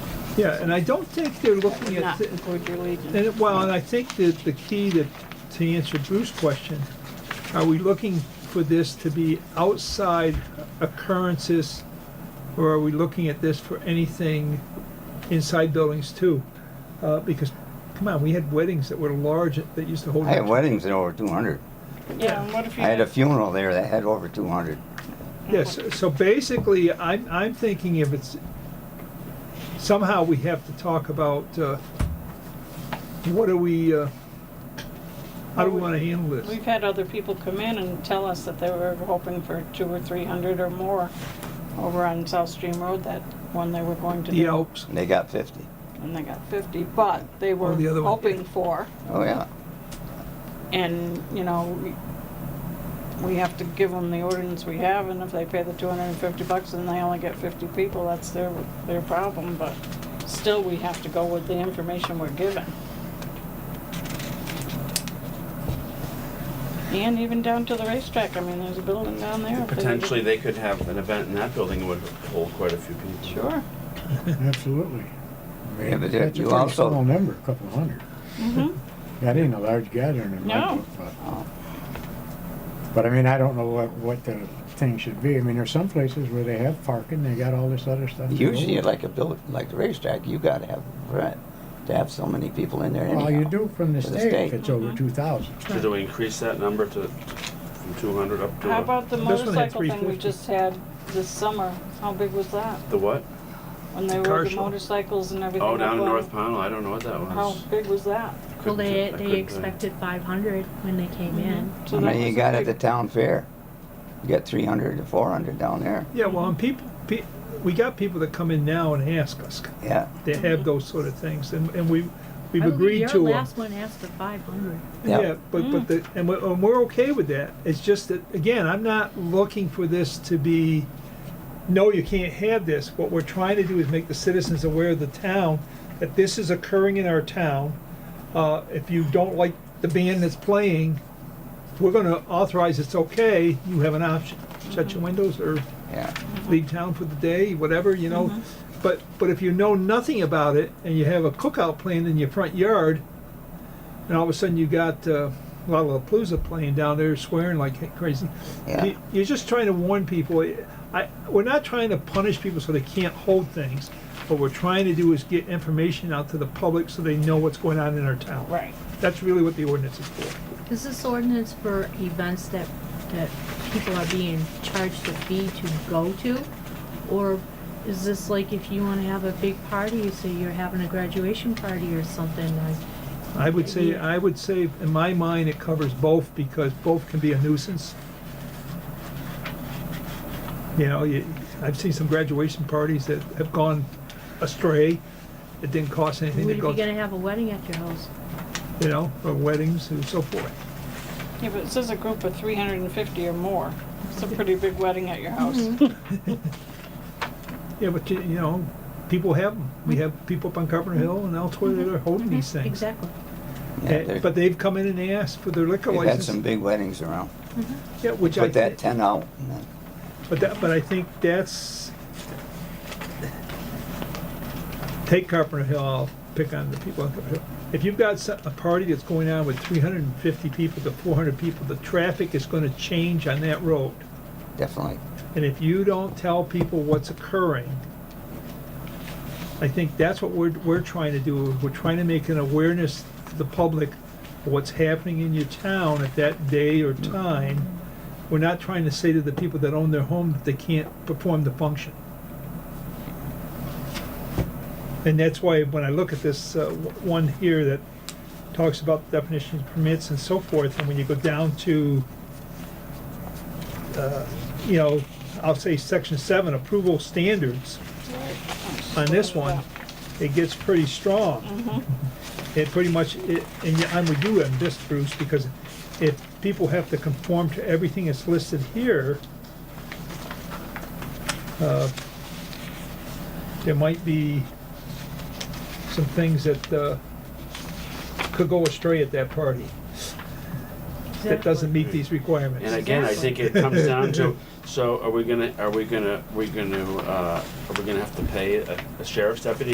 Yeah, and I don't think they're looking at, not thi- include your and, wages. it- well, and I think that the key that, to answer Bruce's question, are we looking for this to be outside occurrences? Or are we looking at this for anything inside buildings too? Uh, because, come on, we had weddings that were large, that used to hold. I had weddings that over two hundred. Yeah, and what if you? I had a funeral there that had over two hundred. Yes, so basically, I'm, I'm thinking if it's, somehow we have to talk about, uh, what do we, uh, how do we wanna handle this? We've had other people come in and tell us that they were hoping for two or three hundred or more over on South Stream Road, that one they were going to The do. Alps, They got fifty. And they got fifty, but they were Oh, the other one. hoping for, Oh, yeah. and, you know, we- we have to give them the ordinance we have, and if they pay the two hundred and fifty bucks and they only get fifty people, that's their, their problem, but still, we have to go with the information we're given. And even down to the racetrack, I mean, there's a building down there. if they need to- Potentially, they could have an event in that building, it would hold quite a few people. Sure. Absolutely. I Yeah, mean, but That's a you pretty also- small number, a couple hundred. Mhm. That ain't a large gathering in my No. book, but. But I mean, I don't know what, what the thing should be. I mean, there's some places where they have parking, they got all this other stuff. Usually, like a build, like the racetrack, you gotta have, right, to have so many people in there anyhow. Well, you do from the For the state state. if it's over two thousand. Should we increase that number to, from two hundred up to? How about the This one had motorcycle thing we 350. just had this summer? How big was that? The what? When they The car rode the show? motorcycles and everything? Oh, down in up on- North Pownell, I don't know what that How was. big was that? Well, Couldn't- I they, couldn't, uh, they expected five hundred when they came Mm-hmm. in. So I that mean, you was got at big- the town fair, you got three hundred to four hundred down there, yeah, well, and people, pe- we got people that come in now and ask us, yeah. they have those sort of things, and, and we, we've Mm-hmm. I believe agreed to uh, them. Your last one asked for five hundred. Yeah. Yeah, but, but the, and we're, and we're okay with that. It's just that, again, I'm not looking for this to be, no, you can't have this. What we're trying to do is make the citizens aware of the town, that this is occurring in our town. Uh, if you don't like the band that's playing, we're gonna authorize it's okay, you have an option. Shut your windows or Yeah, leave town for the day, whatever, you know. But, but if you know nothing about it and you have a cookout planned in your front yard, and all of a sudden you got uh, Lollapalooza playing down there swearing like crazy, Yeah. you- you're just trying to warn people. I, we're not trying to punish people so they can't hold things. What we're trying to do is get information out to the public so they know what's going on in our town. Right. That's really what the ordinance is for. Is this ordinance for events that, that people are being charged a fee to go to? Or is this like if you wanna have a big party, say you're having a graduation party or something, like, I would say, I would say, in my mind, it covers both, because both can be a nuisance. You know, you, I've seen some graduation parties that have gone astray, it didn't cost anything to would you go, be gonna have a wedding at your house? you know, or weddings and so forth. Yeah, but it says a group of three hundred and fifty or more. It's a pretty big wedding at your house. Mm-hmm. Yeah, but, you you know, people have them, we have people up on Carpenter Hill and elsewhere that are holding these things. Mm-hmm. Exactly. yeah, Uh, there- But they've come in and asked for their liquor they've had some license. big weddings around, Yeah, which I. put that thi- ten out, and then- But that, but I think that's, take Carpenter Hill, I'll pick on the people on Carpenter Hill. If you've got so- a party that's going on with three hundred and fifty people to four hundred people, the traffic is gonna change on that road. definitely. And if you don't tell people what's occurring, I think that's what we're, we're trying to do. We're trying to make an awareness to the public of what's happening in your town at that day or time. We're not trying to say to the people that own their home that they can't perform the function. And that's why when I look at this uh, w- one here that talks about definitions, permits and so forth, and when you go down to uh, you know, I'll say section seven, approval standards, on this one, it gets pretty strong. It pretty much, it- and yeah, I'm with you on this, Bruce, because if people have to conform to everything that's listed here, uh, there might be some things that uh, could go astray at that party, that doesn't meet these requirements. And again, I think it comes down to, so are we gonna, are we gonna, we gonna, uh, are we gonna have to pay a a sheriff's deputy